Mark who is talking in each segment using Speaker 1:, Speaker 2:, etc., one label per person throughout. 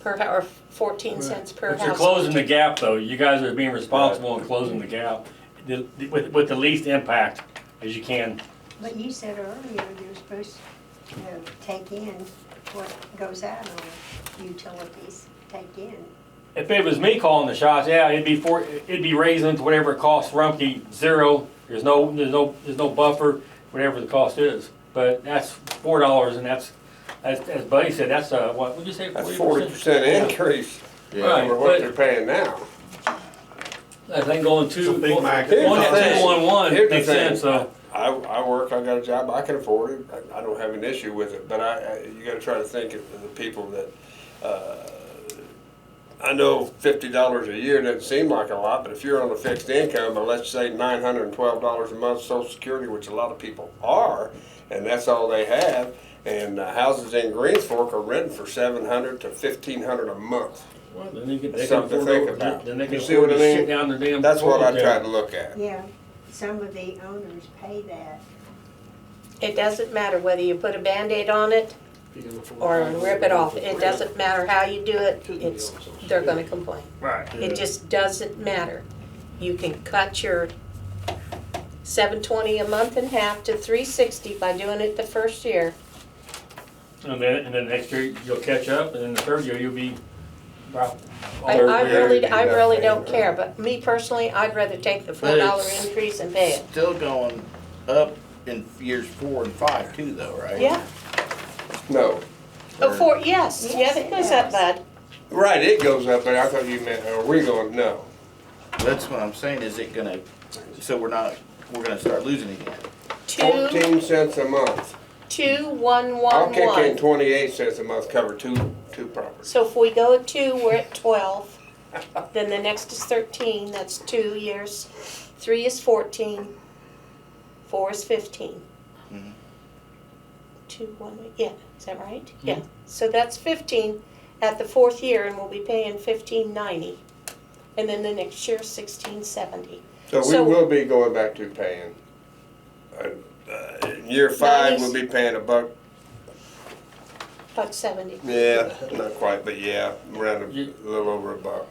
Speaker 1: per hour, fourteen cents per
Speaker 2: But you're
Speaker 1: household.
Speaker 2: closing the gap, though. You guys are being responsible in closing the gap the- the- with, with the least impact as you can.
Speaker 3: But you said earlier, you're supposed to take in what goes out on utilities, take in.
Speaker 2: If it was me calling the shots, yeah, it'd be four, it'd be raising to whatever it costs Rumpke, zero. There's no, there's no, there's no buffer, whatever the cost is. But that's four dollars and that's, as, as Buddy said, that's uh what, what'd you say?
Speaker 4: That's forty percent increase
Speaker 2: Right,
Speaker 4: over what
Speaker 2: but-
Speaker 4: they're paying now.
Speaker 2: I think going two,
Speaker 5: So
Speaker 2: one,
Speaker 5: Big
Speaker 2: one,
Speaker 5: Mac-
Speaker 2: two,
Speaker 4: Here's the thing.
Speaker 2: one, one,
Speaker 4: Here's the
Speaker 2: makes
Speaker 4: thing.
Speaker 2: sense, so.
Speaker 4: I, I work, I got a job, I can afford it, I, I don't have an issue with it, but I, I you gotta try to think of the people that, uh, I know fifty dollars a year doesn't seem like a lot, but if you're on a fixed income, and let's say nine hundred and twelve dollars a month social security, which a lot of people are, and that's all they have, and uh, houses in Greens Fork are renting for seven hundred to fifteen hundred a month.
Speaker 2: Well, Then they can, they
Speaker 4: That's
Speaker 2: can
Speaker 4: something
Speaker 2: afford,
Speaker 4: to think
Speaker 2: to-
Speaker 4: about.
Speaker 2: then they can
Speaker 4: You see
Speaker 2: afford
Speaker 4: what
Speaker 2: to
Speaker 4: I
Speaker 2: sit
Speaker 4: mean?
Speaker 2: down the damn.
Speaker 4: That's what I
Speaker 2: floor
Speaker 4: try
Speaker 2: down.
Speaker 4: to look at.
Speaker 3: Yeah, some of the owners pay that.
Speaker 1: It doesn't matter whether you put a Band-Aid on it or rip it off, it doesn't matter how you do it, it's, they're gonna complain.
Speaker 2: Right.
Speaker 1: It just doesn't matter. You can cut your seven twenty a month in half to three sixty by doing it the first year.
Speaker 2: And then, and then next year you'll catch up, and then the third year you'll be. about-
Speaker 1: I,
Speaker 4: Third
Speaker 1: I
Speaker 4: year,
Speaker 1: really,
Speaker 4: you
Speaker 1: I
Speaker 4: got
Speaker 1: really
Speaker 4: paid,
Speaker 1: don't
Speaker 4: right?
Speaker 1: care, but me personally, I'd rather take the four
Speaker 6: But
Speaker 1: dollar
Speaker 6: it's-
Speaker 1: increase and pay it.
Speaker 6: Still going up in years four and five too, though, right?
Speaker 1: Yeah,
Speaker 4: No,
Speaker 1: oh, four, yes, yeah,
Speaker 3: Yes,
Speaker 1: that
Speaker 3: it
Speaker 1: goes up,
Speaker 3: does.
Speaker 1: bud.
Speaker 4: right, it goes up, but I thought you meant, are we going, no.
Speaker 6: That's what I'm saying, is it gonna, so we're not, we're gonna start losing again?
Speaker 1: Two,
Speaker 4: Fourteen cents a month.
Speaker 1: two, one,
Speaker 4: I'll
Speaker 1: one,
Speaker 4: kick in
Speaker 1: one.
Speaker 4: twenty-eight cents a month, cover two, two properties.
Speaker 1: So if we go at two, we're at twelve, then the next is thirteen, that's two years, three is fourteen, four is fifteen.
Speaker 6: Mhm.
Speaker 1: Two, one, yeah, is that right? Yeah, so that's fifteen at the fourth year, and we'll be paying fifteen ninety. And then the next year, sixteen seventy.
Speaker 4: So we
Speaker 1: So-
Speaker 4: will be going back to paying, uh, uh, in year five, we'll be paying a buck,
Speaker 1: Buck seventy.
Speaker 4: yeah, not quite, but yeah, around a
Speaker 2: You-
Speaker 4: little over a buck.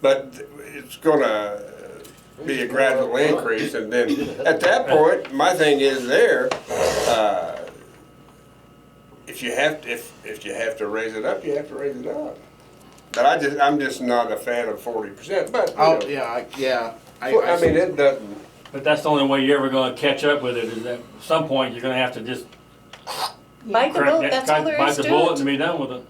Speaker 4: But it's gonna uh, be a gradual increase, and then, at that point, my thing is there, uh, if you have, to- if, if you have to raise it up, you have to raise it up. But I just, I'm just not a fan of forty percent, but, you
Speaker 6: Oh,
Speaker 4: know,
Speaker 6: yeah, I, yeah.
Speaker 4: Well, I mean, it doesn't,
Speaker 2: But that's the only way you're ever gonna catch up with it, is at some point, you're gonna have to just
Speaker 1: Bite the
Speaker 2: crack
Speaker 1: bullet,
Speaker 2: that,
Speaker 1: that's all
Speaker 2: crack,
Speaker 1: there
Speaker 2: bite
Speaker 1: is
Speaker 2: the
Speaker 1: to
Speaker 2: bullet
Speaker 1: it.
Speaker 2: and be done with it.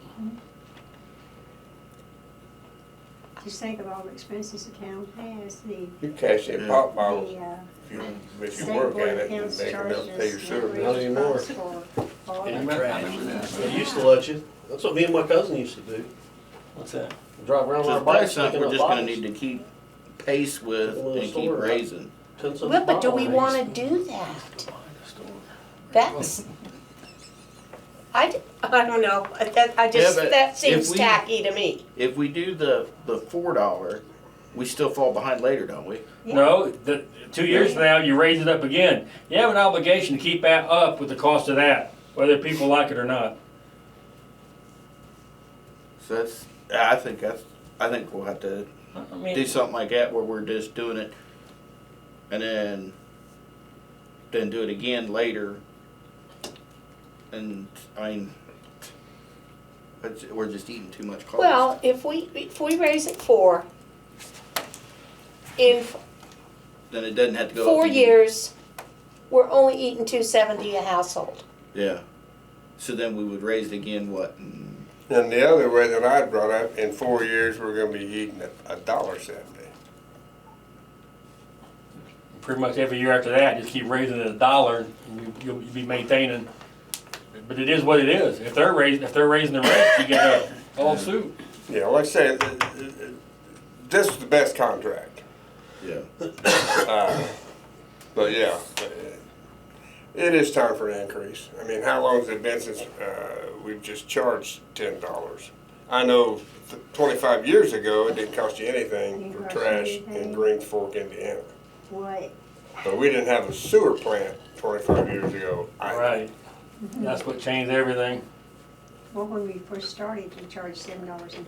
Speaker 3: Just think of all the expenses the town has, the,
Speaker 4: you cash in pop bottles
Speaker 3: the, uh,
Speaker 4: if you, if you
Speaker 3: state
Speaker 4: work
Speaker 3: board
Speaker 4: at it and
Speaker 3: accounts
Speaker 4: make them help pay your
Speaker 3: charges.
Speaker 4: sewer bill.
Speaker 5: Not anymore. They used to let you, that's what me and my cousin used to do,
Speaker 2: What's that?
Speaker 5: drive around on
Speaker 6: So
Speaker 5: our
Speaker 6: it's probably
Speaker 5: bikes
Speaker 6: something
Speaker 5: picking
Speaker 6: we're
Speaker 5: up
Speaker 6: just gonna
Speaker 5: bottles.
Speaker 6: need to keep pace with
Speaker 5: Little
Speaker 6: and keep
Speaker 5: store, right?
Speaker 6: raising.
Speaker 5: Ten cents a
Speaker 1: Well, But do
Speaker 5: bottle.
Speaker 1: we wanna do that? That's, I, d- I don't know, that, I just,
Speaker 6: Yeah, but
Speaker 1: that
Speaker 6: if
Speaker 1: seems
Speaker 6: we-
Speaker 1: tacky to me.
Speaker 6: If we do the, the four dollar, we still fall behind later, don't we?
Speaker 2: No, the, two years from now, you raise it up again. You have an obligation to keep that up with the cost of that, whether people like it or not.
Speaker 6: So that's, I think that's, I think we'll have to
Speaker 2: I
Speaker 6: do
Speaker 2: mean,
Speaker 6: something like that where we're just doing it and then then do it again later and i mean it's- we're just eating too much carbs
Speaker 1: Well, if we, if we raise it four, in f-
Speaker 6: then it doesn't have to go up
Speaker 1: four
Speaker 6: again.
Speaker 1: years, we're only eating two seventy a household.
Speaker 6: yeah so then we would raise it again what in
Speaker 4: And the other way that I brought up, in four years, we're gonna be eating a, a dollar seventy.
Speaker 2: pretty much every year after that, just keep raising it a dollar, and you- you'll be maintaining. But it is what it is. If they're raising, if they're raising the rates, you gotta follow suit.
Speaker 4: Yeah, like I said, th- th- th- this is the best contract,
Speaker 6: yeah
Speaker 4: uh, but yeah. uh, It is time for an increase. I mean, how long's it been since, uh, we've just charged ten dollars? I know th- twenty-five years ago, it didn't cost you anything for
Speaker 3: Didn't cost
Speaker 4: trash in
Speaker 3: anything.
Speaker 4: Greens Fork, Indiana.
Speaker 3: What,
Speaker 4: But we didn't have a sewer plant twenty-five years ago. either.
Speaker 2: Right. That's what changed everything.
Speaker 3: well, when we first started, we charged seven dollars and